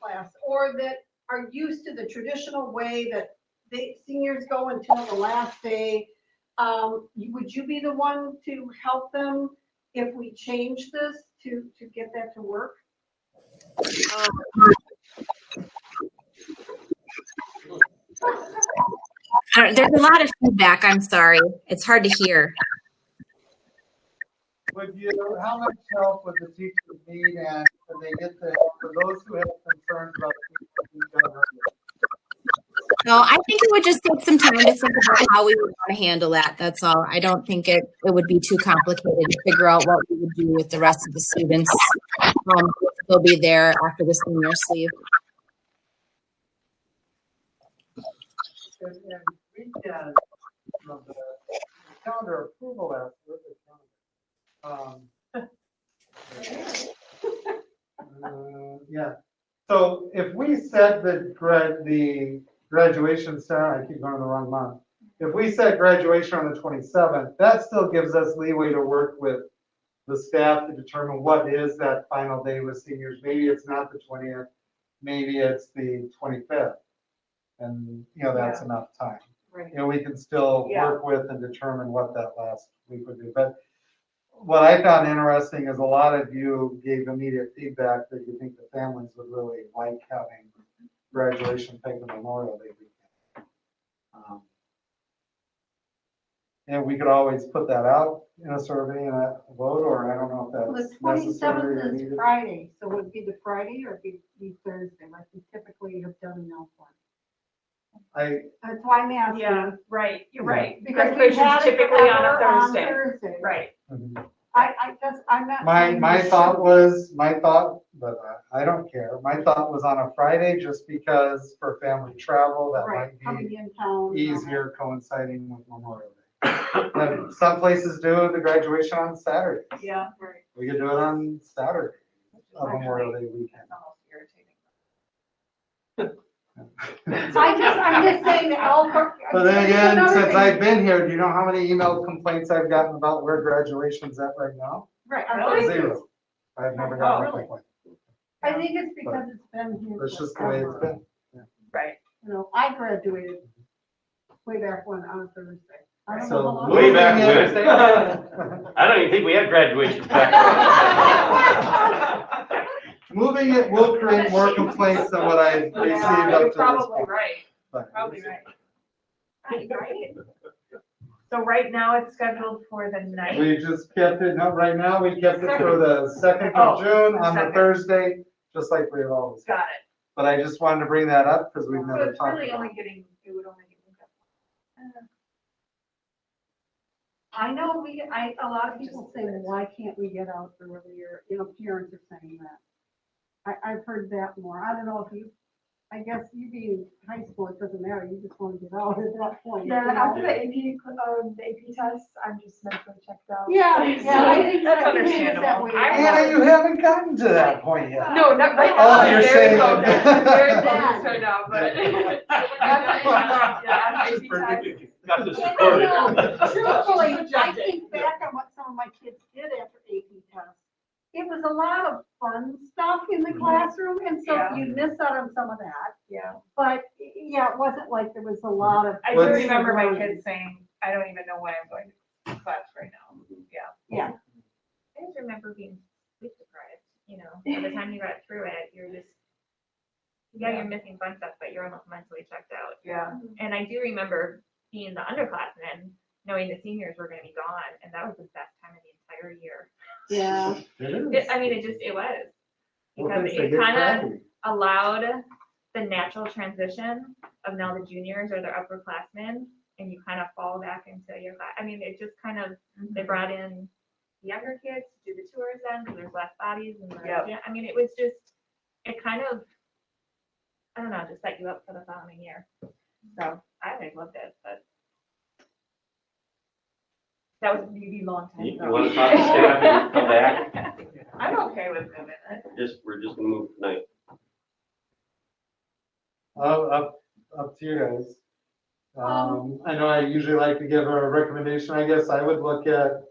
process or that are used to the traditional way that the seniors go until the last day, um, you- would you be the one to help them if we change this to, to get that to work? I don't- There's a lot of feedback. I'm sorry. It's hard to hear. Would you, how much help would the teachers need and can they get the, help for those who have concerns about teachers who don't have it? So I think it would just take some time to think about how we would want to handle that. That's all. I don't think it, it would be too complicated to figure out what we would do with the rest of the students. Um, they'll be there after the seniors leave. And and we can, you know, the the calendar approval effort. is not- um, uh, Yeah, so if we set the grad, the graduation, Sarah, I keep going the wrong month. If we set graduation on the 27th, that still gives us leeway to work with the staff to determine what is that final day with seniors. Maybe it's not the 20th, maybe it's the 25th. And, you know, that's enough time Right. you know, we can still Yeah. work with and determine what that last week would be. But what I found interesting is a lot of you gave immediate feedback that you think the families would really like having graduation pick the Memorial Day weekend. Um, And we could always put that out in a survey and a vote, or I don't know Well, if The that's necessary or twenty-seventh is needed. Friday, so would it be the Friday or it'd be Thursday, like we typically have done in Elkhorn? I, That's why I'm asking. Yeah, right, you're right. Because we had Graduation's it typically on forever a Thursday. Thursday. Right. mhm. I, I guess, I'm not. My, my thought was, my thought, but I I don't care, my thought was on a Friday, just because for family travel, that Right, might coming in town. be easier coinciding with Memorial Day. And Some places do the graduation on Saturday, Yeah. we could do it on Saturday, on Memorial Day weekend. I just, I'm just saying that Elkhorn. But then again, Another since thing- I've been here, do you know how many email complaints I've gotten about where graduation's at right now? Right. Really? Zero. I've never gotten a Oh, really? complaint, I think it's because it's been here. that's just the way it's forever. been. Right. You know, I graduated way back when on Thursday. I don't know how So. long- Way back when. when. I don't even think we had graduation practice. Moving it will create more complaints than what I received up to this Probably point. right, but- probably right. Right. So right now it's scheduled for the ninth. We just kept it, no, right now, we kept it for the second of Oh, June on the second. Thursday, just like we've always. Got But I just wanted to bring that up because we've it. So never it's talked really about only it. getting, it would only get moved up. I know we, I, a lot of people say, well, why can't we get out earlier? You know, parents are saying that. I, I've heard that more. I don't know if you, I guess you being high school, it doesn't matter. You just want to get out at that point. you Yeah, know? after the AP, um, the AP test, I'm just mentally checked out. Yeah, yeah, I think That's I think it's that understandable. way. I- Anna, you haven't gotten to that point yet. No, not right Oh, now. you're Very saying. focused. Very Yeah. focused right now, but. Yeah, She's maybe time. predicting. Got this Yeah, recorded. no, Truthfully, I Subjective. think back on what some of my kids did after AP test. It was a lot of fun stuff in the classroom, and so Yeah. you miss out on some of that. Yeah. But, y- yeah, it wasn't like there was a lot of. I do What's- remember my kids saying, I don't even know why I'm going to class right now. Yeah. I just remember being sleep deprived, you know, by the time you got through it, you're just, yeah, you're missing fun stuff, but you're almost mentally checked out. Yeah. And I do remember being the underclassmen, knowing the seniors were gonna be gone, and that was the best time of the entire year. Yeah. It is. It- I mean, it just, it was. Well, Because thanks, they it get kinda crappy. allowed the natural transition of now the juniors or their upperclassmen, and you kind of fall back into your class. I mean, it just kind of they brought in the younger kids to do the tours then, because there's less bodies and less, Yep. yeah, I mean, it was just, it kind of, I don't know, just set you up for the following year. So I always loved it, but that was a really long time You ago. you wanna talk to staff and come back, I'm okay with moving it. just, we're just gonna move tonight. Oh, up, up to you guys. Um, I know I usually like to give a recommendation, I guess I would look at.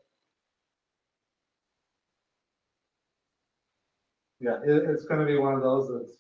Yeah, it, it's gonna be one of those that's